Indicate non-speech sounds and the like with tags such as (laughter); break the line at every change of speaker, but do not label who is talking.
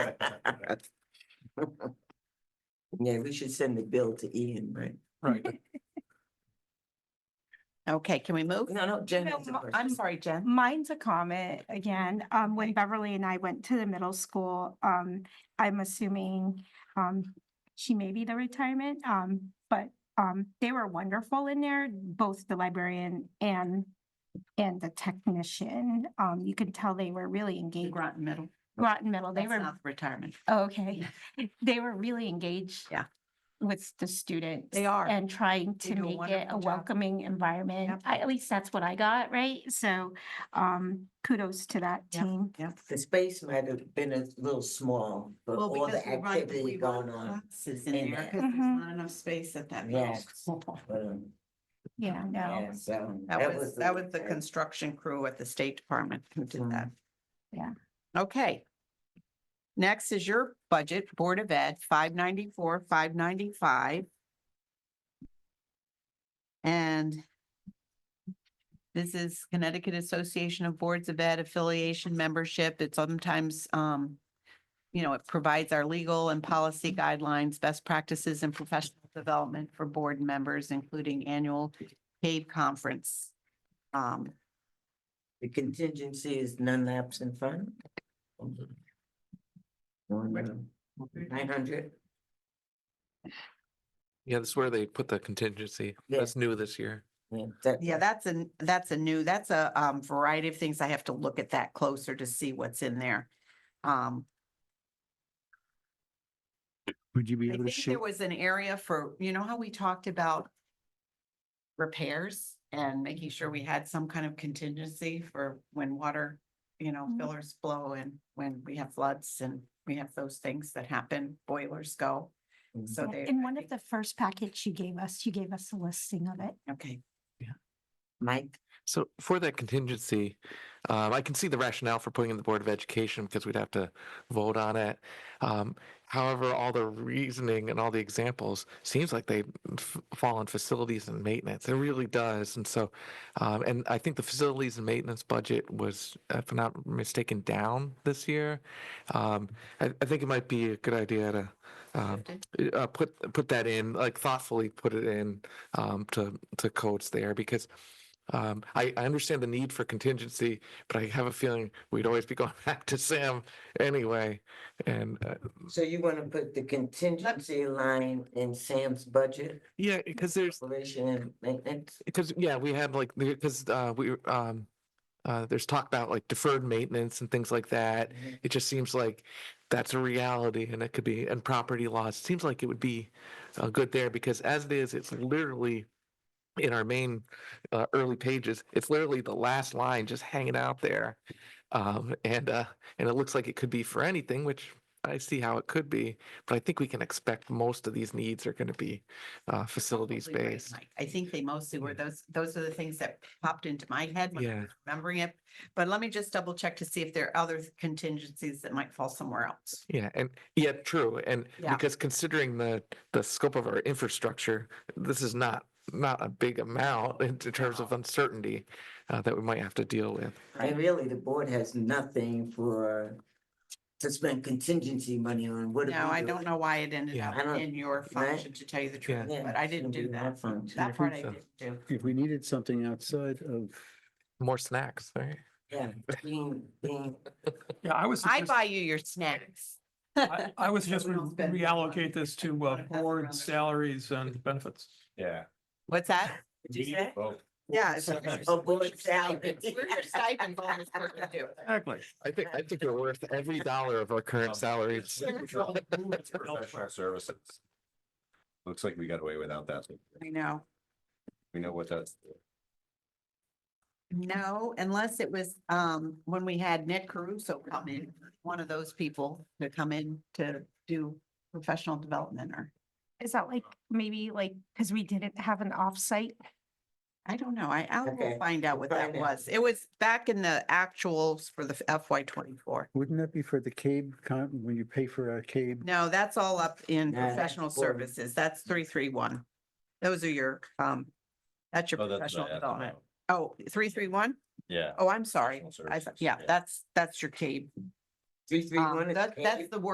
Yeah, we should send the bill to Ian, right?
Right.
(laughs) Okay, can we move? Mm-hmm.
No, no, Jen
No,
has a
mo-
question.
I'm sorry, Jen.
Mine's a comment again. Um, when Beverly and I went to the middle school, um, I'm assuming, um, she may be the retirement, um, but, um, they were wonderful in there, both the librarian and, and the technician. Um, you could tell they were really engaged.
Groton Middle.
Groton Middle, they
That's
were,
not retirement.
oh, okay, (laughs) they were really engaged.
Yeah.
With the students.
They are.
And trying
They
to
do a
make it
wonderful
a
job.
welcoming environment.
Yep.
I, at least that's what I got, right? So, um, kudos to that
Yep.
team.
The space might have been a little small for
Well,
all
because
the
we run-
activity
we
going
run
on.
classes in
in
there
there.
because there's
Mm-hmm.
Mhm.
not enough space at that middle
Yes.
school.
(laughs) but, um,
Yeah, no,
yeah, so
That was,
the-
that was the construction crew at the State Department who did that.
Yeah.
Okay. Next is your budget, Board of Ed, five ninety-four, five ninety-five. And this is Connecticut Association of Boards of Ed affiliation membership. It sometimes, um, you know, it provides our legal and policy guidelines, best practices and professional development for board members, including annual CAVE conference. Um,
The contingency is non-lapse and fund. uh,
Mm-hmm.
Nine hundred,
Yeah, that's where they put the contingency.
Yeah.
That's new this year.
yeah, that.
Yeah, that's a, that's a new, that's a um variety of things. I have to look at that closer to see what's in there. Um,
Would you be
I
able to
think
share?
there was an area for, you know how we talked about repairs and making sure we had some kind of contingency for when water, you know,
Mhm.
fillers blow and when we have floods and we have those things that happen, boilers go.
Mhm.
So
Yeah,
they.
in
I
one of
think-
the first packets you gave us, you gave us a listing of it.
Okay,
Mike,
So for that contingency, um, I can see the rationale for putting in the Board of Education because we'd have to vote on it. Um, however, all the reasoning and all the examples seems like they f- fall on facilities and maintenance. It really does. And so, um, and I think the facilities and maintenance budget was, if I'm not mistaken, down this year. Um, I, I think it might be a good idea to, um, uh, put, put that in, like thoughtfully put it in, um, to, to codes there because um, I, I understand the need for contingency, but I have a feeling we'd always be (laughs) going back to Sam anyway. And uh,
so you wanna put the contingency line in Sam's budget,
yeah, because there's
operation and maintenance?
because yeah, we had like because uh, we um, uh, there's talk about like deferred maintenance and things like that.
Mhm.
It just seems like that's a reality, and it could be and property laws. It seems like it would be uh, good there because as it is, it's literally in our main uh, early pages. It's literally the last line just hanging out there, um, and uh, and it looks like it could be for anything, which. I see how it could be, but I think we can expect most of these needs are going to be uh, facilities
Probably right,
based.
Mike. I think they mostly were,
Yeah.
those, those are the things that popped into my head when I
Yeah.
was remembering it. But let me just double check to see if there are other contingencies that might fall somewhere else.
Yeah, and yeah, true. And
Yeah.
because considering the the scope of our infrastructure, this is not not a big amount in t- terms of uncertainty uh, that we might have to deal with.
And really, the board has nothing for, to spend contingency money on, what do we do?
No, I don't know why it ended
Yeah.
up
I don't-
in your
right?
function, to tell you the truth,
Yeah,
but I didn't
shouldn't be
do
in
that.
that function.
That part I
So-
didn't do.
If we needed something outside of,
More snacks, right?
Yeah, being, being,
Yeah, I was,
I
suggest-
buy you your snacks.
I I would suggest we
Everyone's been-
reallocate this to uh,
Wanna pass around
board
the-
salaries and benefits.
Yeah.
What's that?
(laughs) what'd you say?
Yeah.
A board salary.
(laughs)
Exactly.
I think I think they're worth every dollar of our current salaries.
Professional services. Looks like we got away without that.
I know.
We know what that's.
No, unless it was, um, when we had Nick Caruso come in, one of those people to come in to do professional development or,
Is that like, maybe like, because we didn't have an offsite?
I don't know, I, I
Okay,
will find out what that
find out.
was. It was back in the actuals for the FY twenty-four.
wouldn't that be for the CABE, con- when you pay for a CABE?
No, that's all up in
Yeah, that's
professional
for-
services. That's three, three, one. Those are your, um, that's your
Oh, that's
professional
not
development.
ethanol.
Oh, three, three, one?
Yeah.
Oh, I'm sorry.
Professional
I, thought- yeah,
services, yeah.
that's, that's your CABE.
Three, three,
Um,
one is
that-
okay.
that's the word